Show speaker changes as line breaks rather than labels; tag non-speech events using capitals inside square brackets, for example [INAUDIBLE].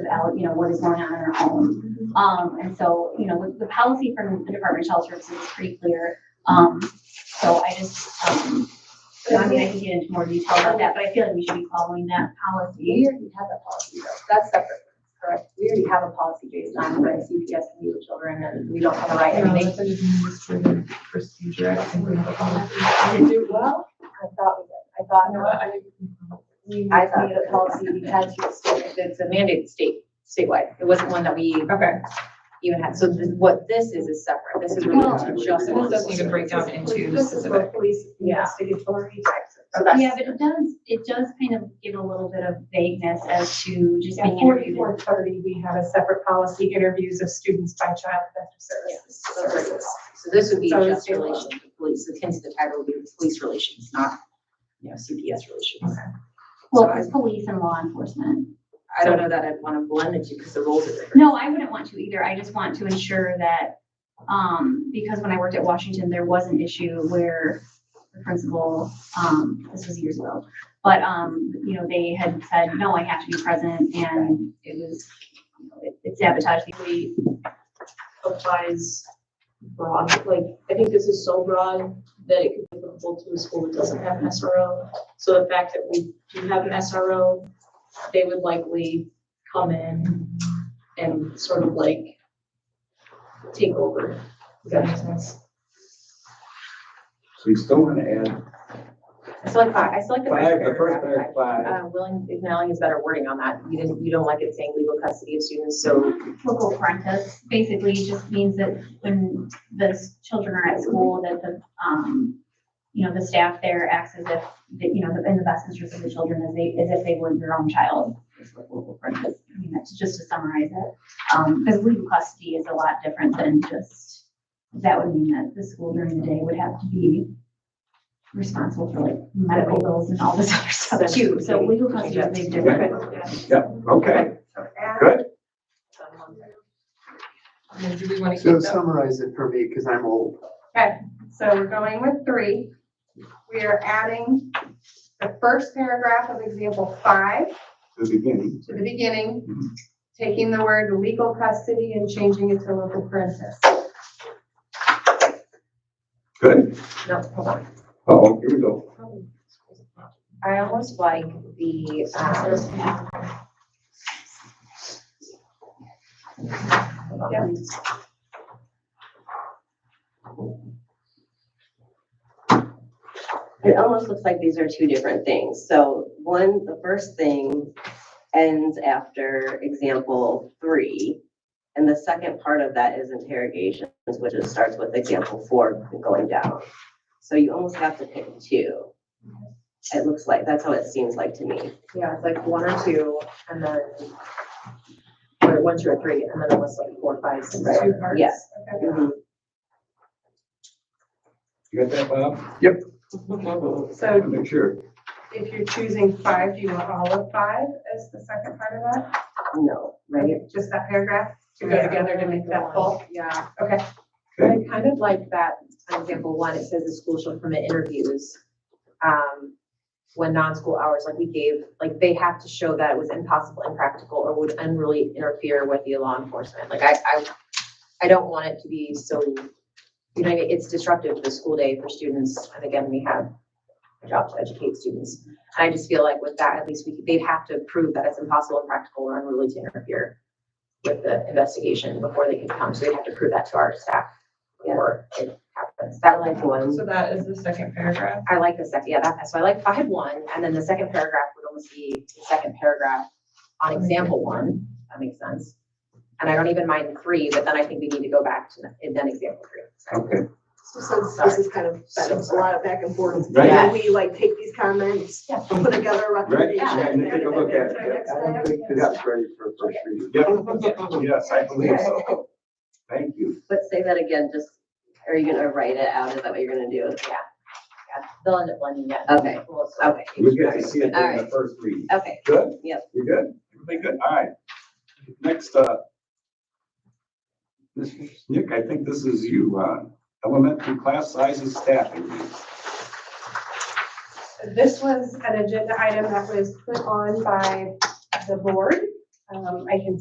about, you know, what is going on in our home. Um, and so, you know, the- the policy from the Department of Child Services is pretty clear. Um, so I just, um, you know, I mean, I can get into more detail about that, but I feel like we should be following that
We
policy.
already have that policy though, that's separate, correct? We already have a policy based on what CPS can do with children and we don't have a right, I mean,
an administrative procedure, I think we have a policy.
they can do well. I thought, we did. I thought, no, I,
We-
I thought we had a policy because it's a mandated state, statewide. It wasn't one that we
Okay,
even had, so this- what this is is separate, this is
Well,
really just.
so this does need to break down into
This is
specific.
what police
Yeah.
investigatory types. of-
Yeah, but it does, it does kind of give a little bit of vagueness as to just
At
being interviewed.
forty-four thirty, we have a separate policy, interviews of students by child protective services.
So this is- so this would be
So
just
it's-
relations to police, akin to the title would be police relations, not, you know, CPS relations.
Well, it's police and law enforcement.
I don't know that I'd want to blend the two because the roles are different.
No, I wouldn't want to either. I just want to ensure that, um, because when I worked at Washington, there was an issue where the principal, um, this was years ago, but, um, you know, they had said, no, I have to be present and it was, you know, it- it sabotaged. the-
really applies broad, like, I think this is so broad that it could be applicable to a school that doesn't have an SRO. So the fact that we do have an SRO, they would likely come in and sort of like take over. Does that make sense?
So you still want to add
I still like five, I still like the first
five, the first
paragraph.
paragraph, five,
Uh, willing, acknowledging is better wording on that. You didn't, you don't like it saying legal custody of students, so
Local parentis basically just means that when the s- children are at school, that the, um, you know, the staff there acts as if, that, you know, in the best interest of the children as they, as if they were their own child. is what local parentis, I mean, that's just to summarize it. Um, because legal custody is a lot different than just, that would mean that the school during the day would have to be responsible for like medical bills and all this other stuff too. So legal custody is a big difference.
okay, good.
And do we want to
So
keep that?
summarize it for me, because I'm old.
So we're going with three. We are adding the first paragraph of example five
The beginning.
to the beginning, taking the word legal custody and changing it to local parentis.
Good.
no, hold on.
Oh, here we go.
I almost like the, um,
It almost looks like these are two different things. So one, the first thing ends after example three. And the second part of that is interrogations, which is starts with example four going down. So you almost have to pick two. It looks like, that's how it seems like to me.
yeah, it's like one or two and then or one, two, or three, and then it was like four, five, six, two parts.
Yeah.
Okay.
Mhm.
You got that, Bob?
So
Make sure.
if you're choosing five, do you want all of five as the second part of that?
No, right?
Just that paragraph to go together to make that full?
Yeah.
Okay.
I kind of like that, on example one, it says the school shall permit interviews, um, when non-school hours, like we gave, like they have to show that it was impossible, impractical, or would unruly interfere with the law enforcement. Like I, I, I don't want it to be so, you know, it's disruptive to the school day for students. And again, we have a job to educate students. And I just feel like with that, at least we, they'd have to prove that it's impossible, impractical, or unruly to interfere with the investigation before they can come, so they have to prove that to our staff before it happens. That like one,
So that is the second paragraph.
I like the second, yeah, that, so I like five one, and then the second paragraph would almost be the second paragraph on example one, that makes sense. And I don't even mind three, but then I think we need to go back to, the- and then example three. So
Okay.
So since this is kind of, been a lot of back and forth,
Right.
can we like take these comments,
Yeah.
put together a
Right,
recommendation?
and take a look at it.
Next
I don't think
slide.
that's ready for first reading. Yep. Yes, I believe
[LAUGHS]
so. Thank you.
But say that again, just, are you gonna write it out? Is that what you're gonna do?
yeah, They'll end up blending it.
Okay.
Well, so-
Okay,
You get to see it in
All
the
right.
first reading.
okay.
Good?
Yep.
You good? Everything good? All right. Next, uh, Mr. Nick, I think this is you, uh, elementary class sizes staffing.
This was an agenda item that was put on by the board Um, I can